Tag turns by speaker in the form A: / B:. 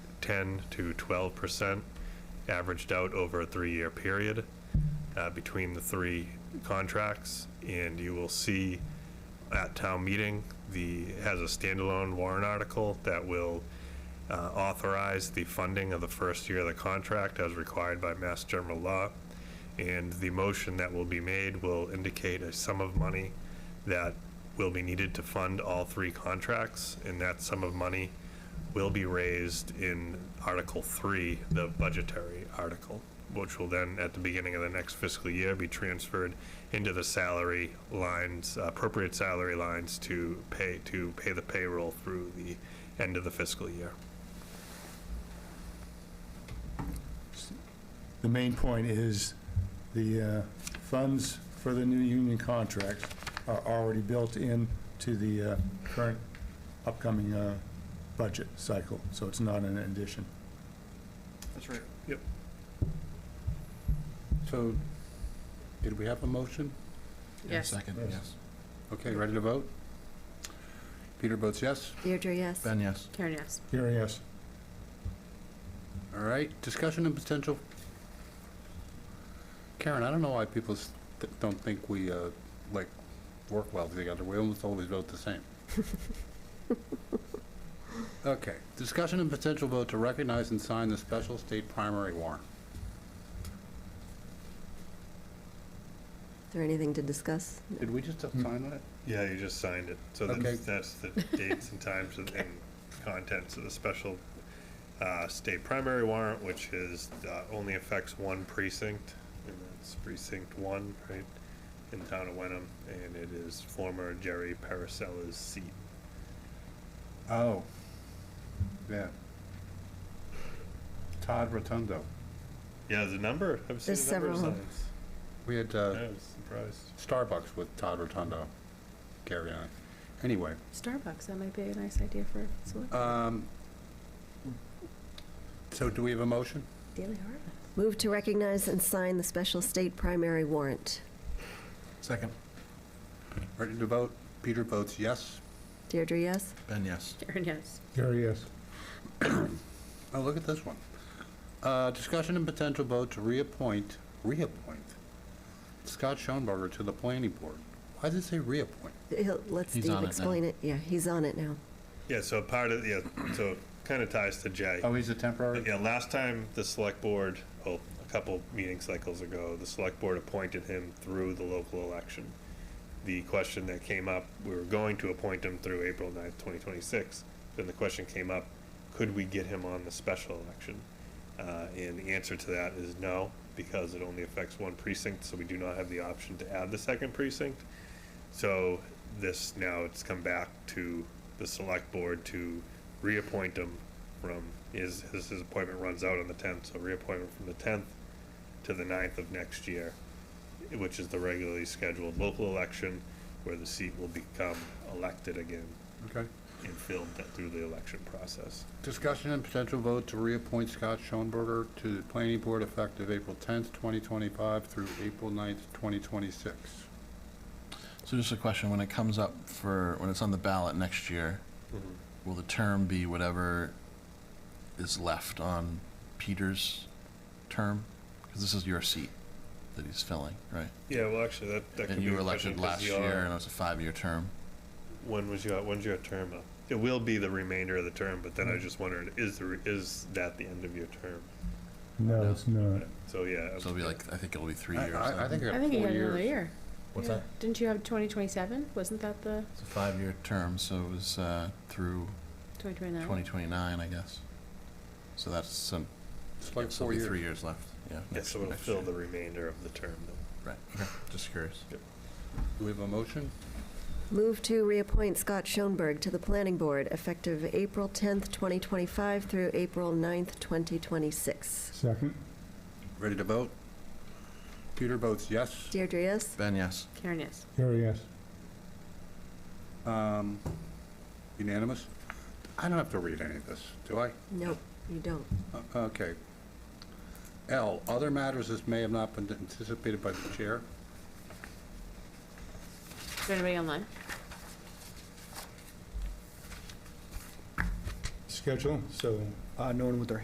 A: 10 to 12 percent, averaged out over a three-year period uh, between the three contracts. And you will see at town meeting, the, has a standalone warrant article that will uh, authorize the funding of the first year of the contract as required by Mass General Law. And the motion that will be made will indicate a sum of money that will be needed to fund all three contracts. And that sum of money will be raised in Article 3, the budgetary article, which will then, at the beginning of the next fiscal year, be transferred into the salary lines, appropriate salary lines to pay, to pay the payroll through the end of the fiscal year.
B: The main point is the uh, funds for the new union contracts are already built in to the uh, current upcoming uh, budget cycle, so it's not an addition.
C: That's right.
D: So, did we have a motion?
E: Yes.
B: Yes.
D: Okay, ready to vote? Peter votes yes.
E: Deirdre, yes.
F: Ben, yes.
E: Karen, yes.
B: Here, yes.
D: All right, discussion and potential. Karen, I don't know why people s- th- don't think we, uh, like, work well together. We almost always vote the same. Okay, discussion and potential vote to recognize and sign the special state primary warrant.
E: Is there anything to discuss?
D: Did we just have
B: Hmm.
D: sign that?
A: Yeah, you just signed it. So
D: Okay.
A: that's, that's the dates and times and and contents of the special uh, state primary warrant, which is, uh, only affects one precinct, and that's precinct one, right, in the town of Wenham, and it is former Jerry Paracella's seat.
D: Oh, yeah. Todd Rotundo.
A: Yeah, there's a number. I've seen
E: There's
A: a number of
E: several.
A: signs.
D: We had,
A: I
D: uh,
A: was surprised.
D: Starbucks with Todd Rotundo. Carry on. Anyway,
E: Starbucks, that might be a nice idea for someone.
D: um, so do we have a motion?
E: Daily Harvest. Move to recognize and sign the special state primary warrant.
F: Second.
D: Ready to vote? Peter votes yes.
E: Deirdre, yes.
F: Ben, yes.
G: Karen, yes.
B: Here, yes.
D: Oh, look at this one. Uh, discussion and potential vote to reappoint, reappoint Scott Schoenberger to the planning board. Why does it say reappoint?
E: He'll- Let
F: He's
E: Steve
F: on it now.
E: explain it. Yeah, he's on it now.
A: Yeah, so part of, yeah, so kind of ties to Jay.
D: Oh, he's a temporary?
A: But yeah, last time the select board, oh, a couple meeting cycles ago, the select board appointed him through the local election. The question that came up, we were going to appoint him through April 9th, twenty twenty-six. Then the question came up, could we get him on the special election? Uh, and the answer to that is no, because it only affects one precinct, so we do not have the option to add the second precinct. So this, now it's come back to the select board to reappoint him from, his, his his appointment runs out on the tenth, so reappointment from the tenth to the 9th of next year, which is the regularly scheduled local election where the seat will become elected again
D: Okay.
A: and filled th- through the election process.
D: Discussion and potential vote to reappoint Scott Schoenberger to the planning board effective April 10th, 2025 through April 9th, 2026.
F: So just a question, when it comes up for, when it's on the ballot next year, will the term be whatever is left on Peter's term? Because this is your seat that he's filling, right?
A: Yeah, well, actually, that, that could
F: And
A: be.
F: you were
A: a question
F: elected
A: 'cause
F: last
A: your-
F: year, and it was a five-year term.
A: When was your, when's your term up? It will be the remainder of the term, but then I
F: Mm-hmm.
A: just wondered, is the, re- is that the end of your term?
B: No, it's not.
A: So, yeah.
F: So it'll be like, I think it'll be three
D: I-
F: years.
D: I I
F: then.
D: think I
G: I
D: got
G: think you
D: four
G: got another
D: years.
G: year.
F: What's
G: Yeah.
F: that?
G: Didn't you have 2027? Wasn't that the
F: It's a five-year term, so it was uh, through
G: 2029?
F: 2029, I guess. So that's some,
D: It's
F: so
D: like
F: it'll
D: four
F: be
D: years.
F: three years left, yeah.
A: Yeah,
F: next-
A: so it'll
F: next
A: fill
F: year.
A: the remainder of the term then.
F: Right, okay, just curious.
D: Do we have a motion?
E: Move to reappoint Scott Schoenberg to the planning board effective April 10th, 2025 through April 9th, 2026.
B: Second?
D: Ready to vote? Peter votes yes.
E: Deirdre, yes.
F: Ben, yes.
G: Karen, yes.
B: Here, yes.
D: Um, Unanimous? I don't have to read any of this, do I?
E: No, you don't.
D: Uh, Okay. L, other matters as may have not been anticipated by the chair.
G: Is there anybody online?
H: schedule, so
B: Uh, No one with their